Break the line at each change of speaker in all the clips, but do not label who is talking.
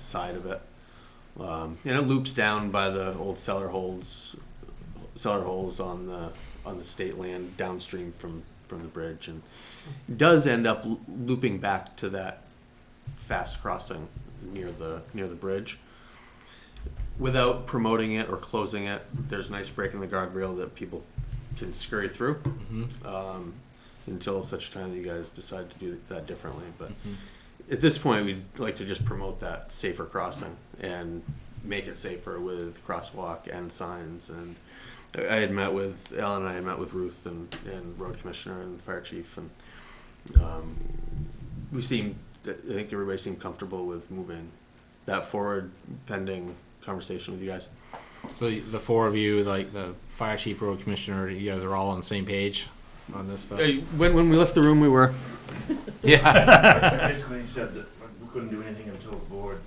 side of it. Um, and it loops down by the old cellar holes, cellar holes on the on the state land downstream from from the bridge, and does end up l- looping back to that fast crossing near the near the bridge. Without promoting it or closing it, there's a nice break in the guardrail that people can scurry through um, until such time that you guys decide to do that differently. But at this point, we'd like to just promote that safer crossing and make it safer with crosswalk and signs. And I I had met with Alan, and I had met with Ruth and, and road commissioner and the fire chief, and um, we seemed, I think everybody seemed comfortable with moving that forward pending conversation with you guys.
So the four of you, like the fire chief, road commissioner, you guys are all on the same page on this stuff.
Uh, When, when we left the room, we were.
Yeah,
Basically, he said that we couldn't do anything until the board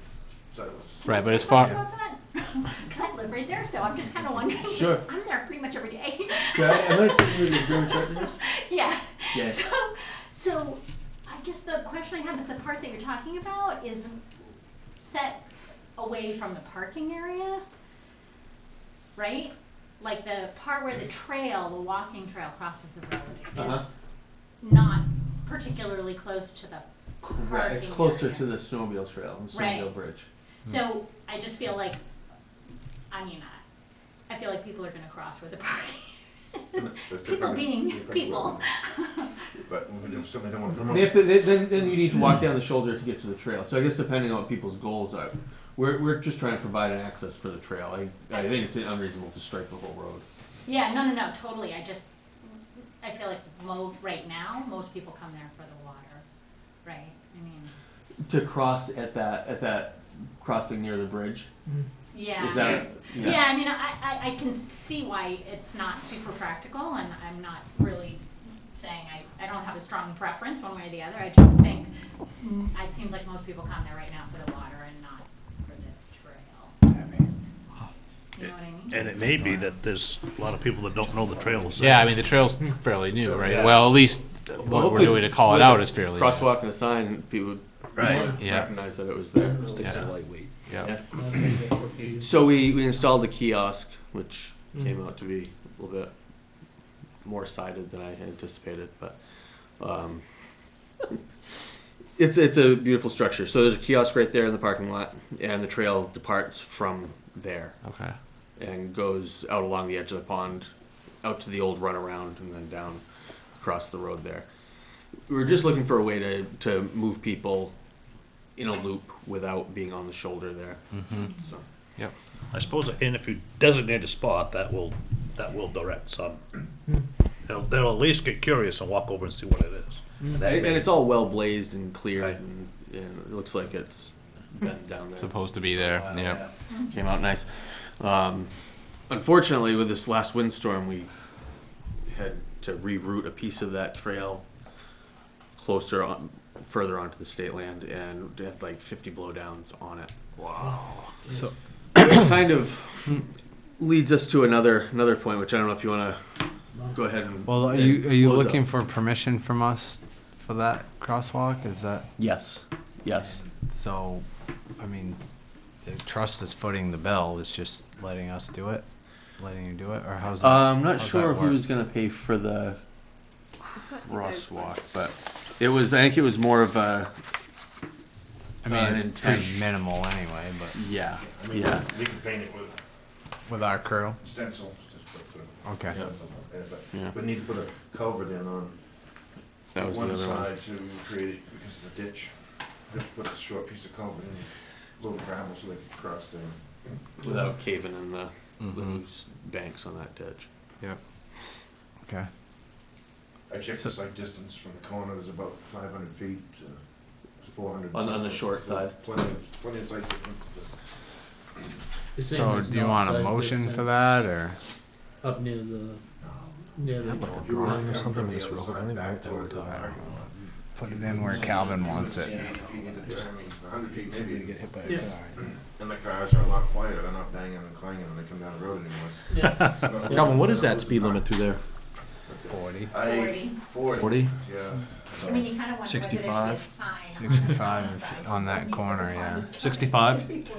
said it was.
right. But as
Because
far
I live right there, so I'm just kind of wondering. 'cause
Sure.
I'm there pretty much every day.
Am I sitting with the German Shepherdess?
yeah.
Yeah.
So, so I guess the question I have is the part that you're talking about is set away from the parking area, right? Like the part where the trail, the walking trail crosses the road
Uh-huh.
is not particularly close to the
Right, it's
Parking
closer
area.
to the snowmobile trail, the
Right.
snowmobile bridge.
So I just feel like, I mean, I, I feel like people are gonna cross with the parking. People being people.
But if somebody don't want to come
And if the, then, then you need to walk down the shoulder to get to the trail. So I guess depending on what people's goals are, we're, we're just trying to provide an access for the trail. I, I think it's unreasonable to stripe the whole road.
Yeah, no, no, no, totally, I just, I feel like mo, right now, most people come there for the water, right? I mean,
To cross at that at that crossing near the bridge
yeah.
is that yeah.
Yeah, I mean, I, I, I can s- see why it's not super practical, and I'm not really saying I, I don't have a strong preference one way or the other. I just think mm, it seems like most people come there right now for the water and not for the trail. You know what I mean?
And it may be that there's a lot of people that don't know the trails.
yeah, I mean the trail's fairly new, right?
Yeah.
Well, at least
Well,
what we're doing to call it
with
out
a
is fairly new.
crosswalk and a sign. People
Right.
would
Yeah.
recognize that it was there.
Yeah.
Yeah.
Yeah.
So we, we installed the kiosk, which came out to be a little bit more sided than I anticipated, but um, it's it's a beautiful structure. So there's a kiosk right there in the parking lot, and the trail departs from there
Okay.
and goes out along the edge of the pond, out to the old runaround, and then down across the road there. We were just looking for a way to, to move people in a loop without being on the shoulder there. So.
Yep.
I suppose, and if you designate a spot, that will, that will direct some.
Hmm.
They'll, they'll at least get curious and walk over and see what it is.
Hmm.
And that
And,
may-
and it's all well blazed and cleared,
Right.
and, and it looks like it's been down there.
Supposed to be there.
Uh,
Yeah.
Came out nice. Um, unfortunately, with this last windstorm, we had to reroute a piece of that trail closer on, further onto the state land, and it had like 50 blowdowns on it. Wow. So, which kind of leads us to another another point, which I don't know if you want to go ahead and.
Well, are you, are you
close
looking
up.
for permission from us for that crosswalk? Is that,
Yes. Yes.
so, I mean, the trust is footing the bill, it's just letting us do it? Letting you do it, or how's that?
Uh, I'm not
how's that
sure
work?
who's going to pay for the crosswalk, but it was. I think it was more of a.
I mean,
uh,
it's
intent.
pretty minimal anyway, but
Yeah,
I mean,
yeah.
we can paint it with
with our crew,
stencils, just put the.
okay.
Yeah.
stencils on there,
Yeah.
But we need to put a culvert in on
That was
one
another one.
side to create it because of the ditch. Just put a short piece of culvert in, little gravel so they can cross there.
Without caving in the, the
Mm-hmm.
loose banks on that ditch.
Yeah.
Okay,
I checked
So-
the site distance from the corner, there's about five hundred feet to four hundred.
On- on the short side.
Plenty of, plenty of site distance.
so do you want a motion for that, or?
Up near the, near the.
If you were to come from the other side back toward the parking lot,
Put it in where Calvin wants it.
if you need to turn, I mean, a hundred feet maybe,
hit by
Yeah.
and the cars are a lot quieter, they're not banging and clanging when they come down the road anymore.
Yeah.
Calvin, what is that speed limit through there?
Forty.
I,
Forty.
forty.
Forty?
Yeah.
I mean, you kind of wonder whether there should be a
65,
sign on the
65
side
on that
when you go
corner,
across.
yeah.
65?